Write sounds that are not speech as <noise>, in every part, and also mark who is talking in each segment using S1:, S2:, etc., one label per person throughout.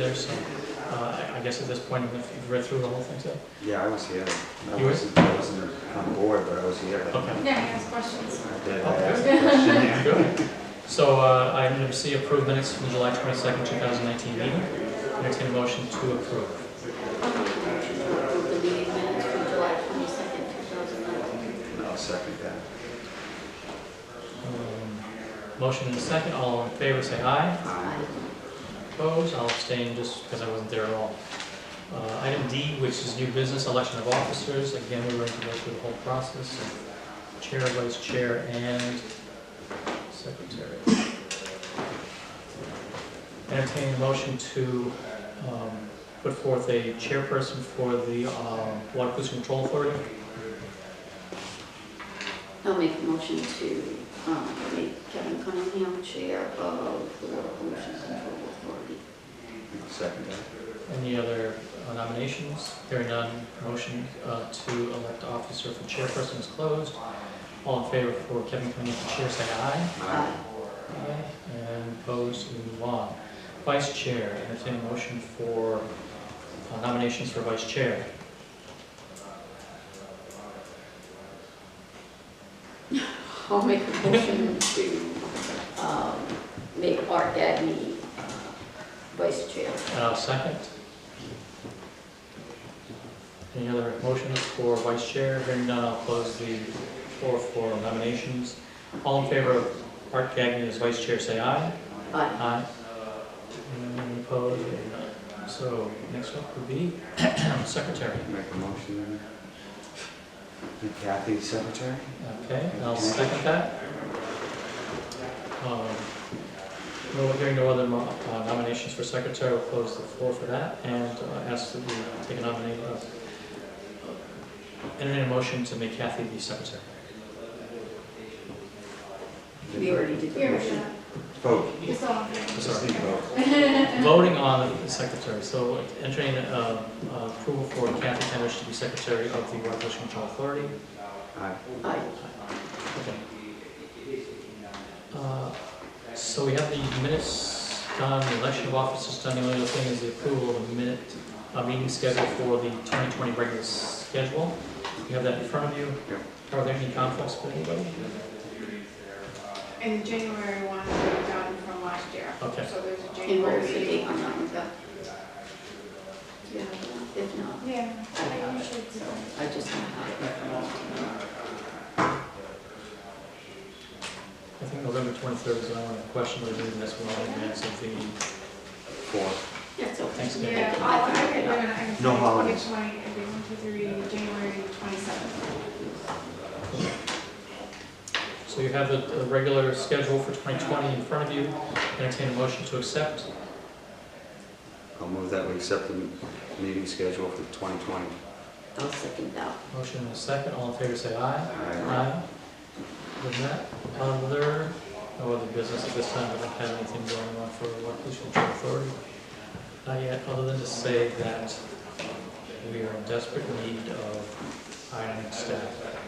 S1: there, so uh, I I guess at this point, if you've read through the whole thing, so.
S2: Yeah, I was here. I
S1: You were?
S2: wasn't, I wasn't on board, but I was here.
S1: Okay.
S3: Yeah, he has questions.
S2: I
S4: <laughs>
S2: did, I
S1: Okay.
S2: asked a question there.
S1: Good. So uh, item number C, approved minutes from the July 22nd, 2019 meeting. Entertain a motion to approve.
S3: The meeting minutes from July twenty-second, two thousand nineteen.
S2: I'll second that.
S1: Um, Motion and a second, all in favor, say aye.
S2: Aye.
S1: Opposed, I'll abstain just because I wasn't there at all. Uh, Item D, which is new business, election of officers. Again, we're going to go through the whole process. of Chair, vice chair, and secretary. Entertaining motion to um, put forth a chairperson for the um, Water Pollution Control Authority.
S3: I'll make a motion to, um, make Kevin Cunningham chair of the Water Pollution Control Authority.
S2: I'll second that.
S1: Any other uh, nominations? Hearing none, motion uh, to elect officer for chairperson is closed. All in favor for Kevin Cunningham for chair, say aye.
S2: Aye.
S1: Aye. And opposed, we move on. Vice chair, entertain a motion for uh, nominations for vice chair.
S3: I'll make a motion to, um, make Art Gagne uh, vice chair.
S1: And I'll second. Any other motions for vice chair? Hearing none, I'll close the floor for nominations. All in favor of Art Gagnon as vice chair, say aye.
S3: Aye.
S1: Aye. And opposed, hearing none. So next up would be <clears throat> secretary.
S2: Make a motion then. And Kathy, secretary?
S1: Okay, and I'll second that. Um, No, hearing no other mo- uh, nominations for secretary, we'll close the floor for that, and uh, ask that we take a nomination. Entertain a motion to make Kathy the secretary.
S3: We already did the motion.
S2: Vote. Just
S1: Sorry.
S2: need to vote.
S1: Voting on the secretary, so entertain uh, uh, approval for Kathy Tenish to be secretary of the Water Pollution Control Authority.
S2: Aye.
S3: Aye.
S1: Okay. Uh, So we have the minutes done, the election of officers done, the only other thing is the approval of the minute, uh, meeting schedule for the 2020 regular schedule. You have that in front of you.
S2: Yep.
S1: Are there any conflicts with anybody?
S4: And January one, we're done from last year.
S1: Okay.
S4: So there's a
S3: And
S4: January
S3: what was the date
S4: meeting.
S3: on that one, Beth? Do you have that? If not,
S4: Yeah, I usually do.
S3: I just don't have it.
S1: I think November 23rd is the only question we're doing this one in advance of the,
S2: Four.
S3: That's okay.
S1: Thanks, Dave.
S4: Yeah, I'll, Oh, I can, do it. I can.
S2: No holidays.
S4: Which one, it'd be one, two, three, January twenty-seventh.
S1: so you have the the regular schedule for 2020 in front of you. Entertain a motion to accept.
S2: I'll move that we accept the meeting schedule for 2020.
S3: I'll second that.
S1: Motion and a second, all in favor say aye.
S2: Aye.
S1: Aye. Other than that, other, no other business at this time, we don't have anything going on for Water Pollution Control Authority. Not yet, other than to say that we are in desperate need of hiring staff.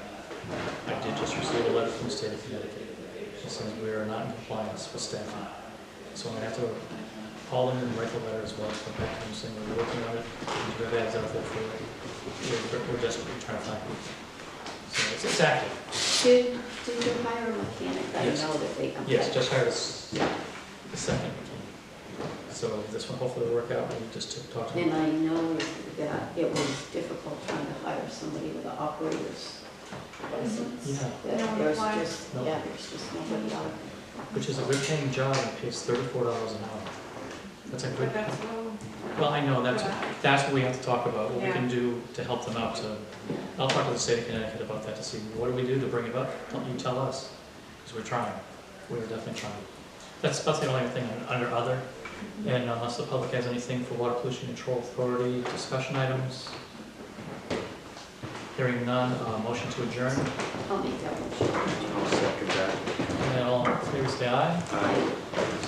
S1: I did just receive a letter from the state of Connecticut, that says we are not in compliance with staffing. So I'm gonna have to call them and write a letter as well, come back to them saying we're working on it, we have ads out there for, it. we're, we're desperately trying to find people. So it's, it's active.
S3: Did, did you hire a mechanic? I
S1: Yes.
S3: know that they. okay.
S1: Yes, just hired us the second. So this one hopefully will work out, we just took- talked to
S3: And
S1: them.
S3: I know that it was difficult trying to hire somebody with an operator's license.
S1: Yeah.
S3: That
S4: No one
S3: There's
S4: applied?
S3: just,
S1: No.
S3: yeah, there's just nobody out.
S1: Which is a good paying job, it pays thirty-four dollars an hour. That's a good,
S4: But that's all.
S1: well, I know, that's,
S4: Yeah.
S1: that's what we have to talk about, what we can do to help them out, so.
S3: Yeah.
S1: I'll talk to the state of Connecticut about that to see, what do we do to bring it up? Don't you tell us, because we're trying, we're definitely trying. That's about the only thing under other, and unless the public has anything for Water Pollution Control Authority discussion items. Hearing none, uh, motion to adjourn,
S3: I'll make that one.
S2: I'll second that.
S1: and all in favor, say aye.
S2: Aye.